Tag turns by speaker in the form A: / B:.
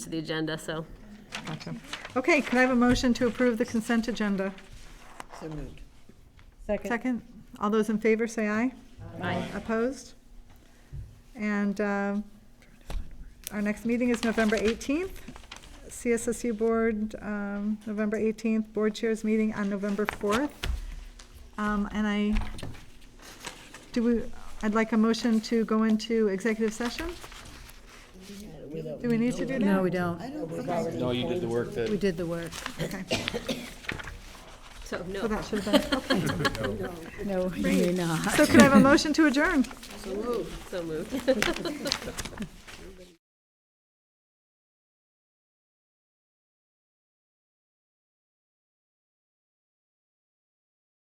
A: to the agenda, so.
B: Gotcha. Okay, could I have a motion to approve the consent agenda?
C: So moved.
B: Second, all those in favor say aye.
A: Aye.
B: Opposed? And um, our next meeting is November 18th. CSSU Board, um, November 18th, Board Chairs Meeting on November 4th. Um, And I, do we, I'd like a motion to go into executive session? Do we need to do that?
D: No, we don't.
C: I don't think I
E: No, you did the work that.
D: We did the work.
B: Okay,
A: So,
B: so
A: no,
B: that should have been, okay.
D: No, you may not.
B: So could I have a motion to adjourn?
A: so moved.